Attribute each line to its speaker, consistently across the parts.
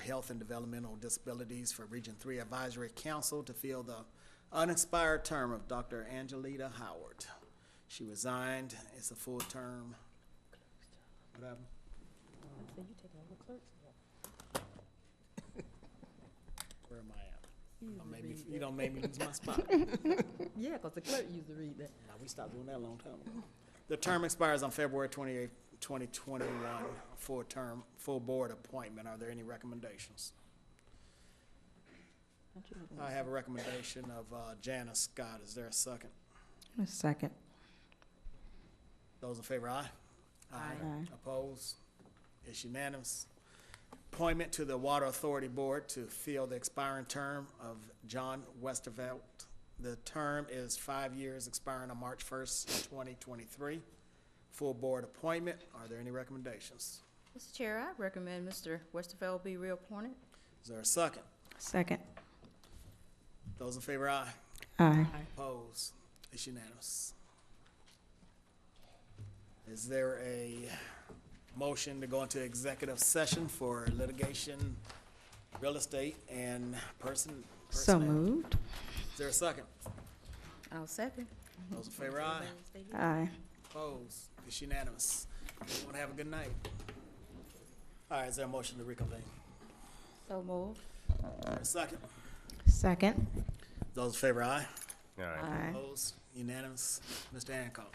Speaker 1: Health and Developmental Disabilities for Region Three Advisory Council to fill the unexpired term of Dr. Angelita Howard. She resigned. It's a full term. What happened?
Speaker 2: So you taking over clerk's job?
Speaker 1: Where am I at? Don't make me, you don't make me lose my spot.
Speaker 2: Yeah, 'cause the clerk used to read that.
Speaker 1: Now, we stopped doing that a long time ago. The term expires on February twenty-eighth, twenty twenty-one, full term, full board appointment. Are there any recommendations? I have a recommendation of uh, Janice Scott. Is there a second?
Speaker 3: A second.
Speaker 1: Those in favor, aye?
Speaker 3: Aye.
Speaker 1: Opposed? It's unanimous. Appointment to the Water Authority Board to fill the expiring term of John Westervelt. The term is five years, expiring on March first, twenty twenty-three. Full board appointment. Are there any recommendations?
Speaker 4: Mr. Chair, I recommend Mr. Westerfeld be reappointed.
Speaker 1: Is there a second?
Speaker 3: Second.
Speaker 1: Those in favor, aye?
Speaker 3: Aye.
Speaker 1: Opposed? It's unanimous. Is there a motion to go into executive session for litigation, real estate, and person?
Speaker 3: So
Speaker 1: personnel?
Speaker 3: moved.
Speaker 1: Is there a second?
Speaker 4: I'll second.
Speaker 1: Those in favor, aye.
Speaker 5: Uh,
Speaker 3: Aye.
Speaker 1: Opposed? It's unanimous. Everyone have a good night. All right, is there a motion to reconvene?
Speaker 4: So moved.
Speaker 1: Is there a second?
Speaker 3: Second.
Speaker 1: Those in favor, aye.
Speaker 3: Aye.
Speaker 1: Opposed? Unanimous. Mr. Hancock.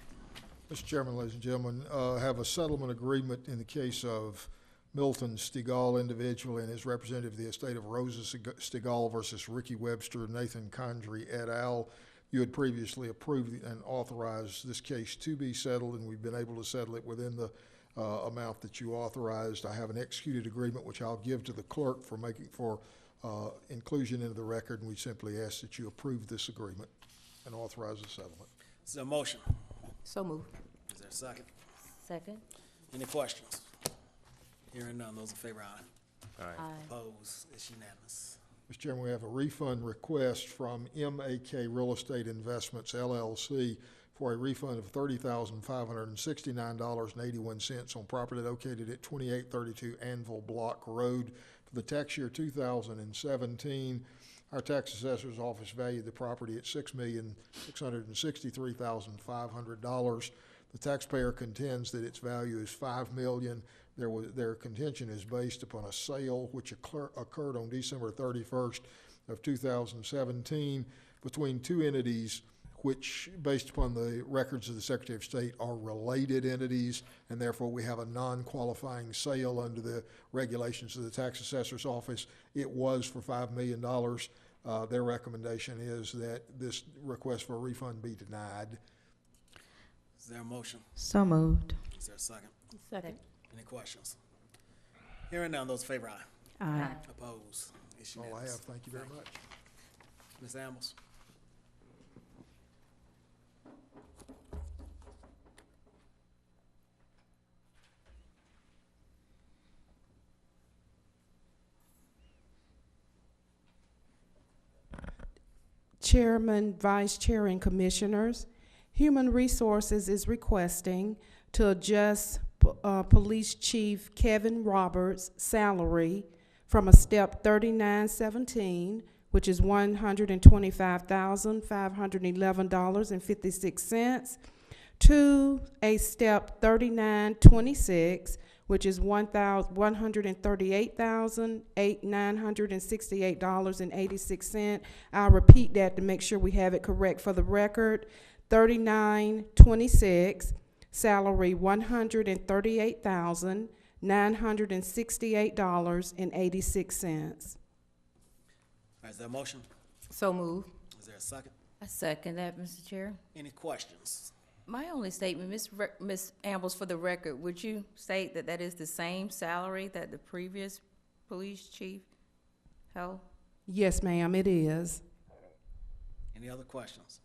Speaker 6: Mr. Chairman, ladies and gentlemen, uh, have a settlement agreement in the case of Milton Stigall individual and his representative of the estate of Rosa Stig- Stigall versus Ricky Webster, Nathan Condrey et al. You had previously approved and authorized this case to be settled, and we've been able to settle it within the uh, amount that you authorized. I have an executed agreement, which I'll give to the clerk for making, for uh, inclusion into the record, and we simply ask that you approve this agreement and authorize the settlement.
Speaker 1: Is there a motion?
Speaker 2: So moved.
Speaker 1: Is there a second?
Speaker 4: Second.
Speaker 1: Any questions? Hearing none, those in favor, aye.
Speaker 4: Aye.
Speaker 1: Opposed, it's unanimous.
Speaker 6: Mr. Chairman, we have a refund request from MAK Real Estate Investments LLC for a refund of $30,569.81 on property located at 2832 Anvil Block Road for the tax year 2017. Our tax assessor's office valued the property at $6,663,500. The taxpayer contends that its value is five million. There was, their contention is based upon a sale which occur- occurred on December thirty-first of two thousand seventeen between two entities which, based upon the records of the Secretary of State, are related entities, and therefore we have a non-qualifying sale under the regulations of the tax assessor's office. It was for five million dollars. Uh, their recommendation is that this request for a refund be denied.
Speaker 1: Is there a motion?
Speaker 3: So moved.
Speaker 1: Is there a second?
Speaker 2: Second.
Speaker 1: Any questions? Hearing none, those in favor, aye.
Speaker 3: Aye.
Speaker 1: Opposed, it's
Speaker 6: All Oh, I have.
Speaker 1: unanimous.
Speaker 6: Thank you very much.
Speaker 1: Ms. Ambles?
Speaker 5: Chairman, Vice Chair, and Commissioners, Human Resources is requesting to adjust uh, Police Chief Kevin Roberts' salary from a step 3917, which is $125,511.56, to a step 3926, which is $138,868.86. I'll repeat that to make sure we have it correct for the record. Thirty-nine twenty-six, salary one hundred and thirty-eight thousand, nine hundred and sixty-eight dollars and eighty-six cents.
Speaker 1: All right, is there a motion?
Speaker 2: So moved.
Speaker 1: Is there a second?
Speaker 4: I second that, Mr. Chair.
Speaker 1: Any questions?
Speaker 4: My only statement, Ms. Re- Ms. Ambles, for the record, would you state that that is the same salary that the previous police chief held?
Speaker 5: Yes, ma'am, it is.
Speaker 1: Any other questions?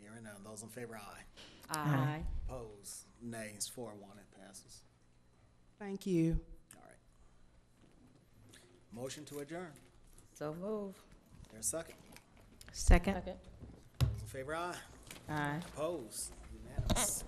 Speaker 1: Hearing none, those in favor, aye.
Speaker 4: Aye.
Speaker 1: Opposed, nays, four, one, it passes.
Speaker 5: Thank you.
Speaker 1: All right. Motion to adjourn.
Speaker 4: So moved.
Speaker 1: Is there a second?
Speaker 3: Second.
Speaker 1: Those in favor, aye.
Speaker 3: Aye.
Speaker 1: Opposed? Unanimous.